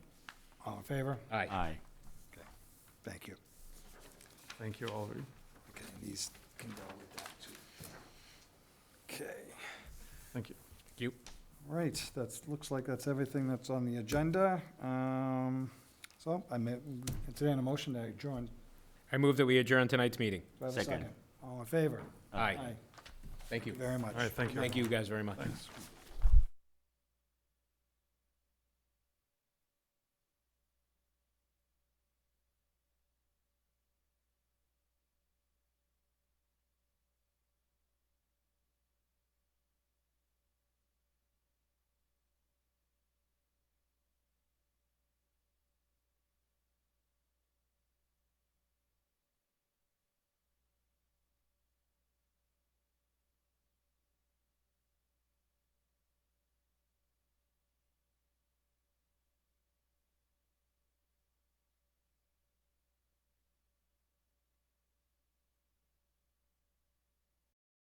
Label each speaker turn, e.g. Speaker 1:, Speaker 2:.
Speaker 1: favor?
Speaker 2: Aye.
Speaker 3: Aye.
Speaker 4: Thank you.
Speaker 5: Thank you, all of you.
Speaker 4: Okay, these can go with that too. Okay,
Speaker 5: Thank you.
Speaker 2: You.
Speaker 4: all right, that's, looks like that's everything that's on the agenda. Um, So I may, entertain a motion to adjourn.
Speaker 2: I move that we adjourn tonight's meeting.
Speaker 4: Do I have a
Speaker 3: Second.
Speaker 4: All in favor?
Speaker 2: Aye. Thank
Speaker 4: Thank
Speaker 2: you.
Speaker 4: you Very much.
Speaker 5: All right, thank you.
Speaker 2: Thank you guys very much.
Speaker 5: Thanks.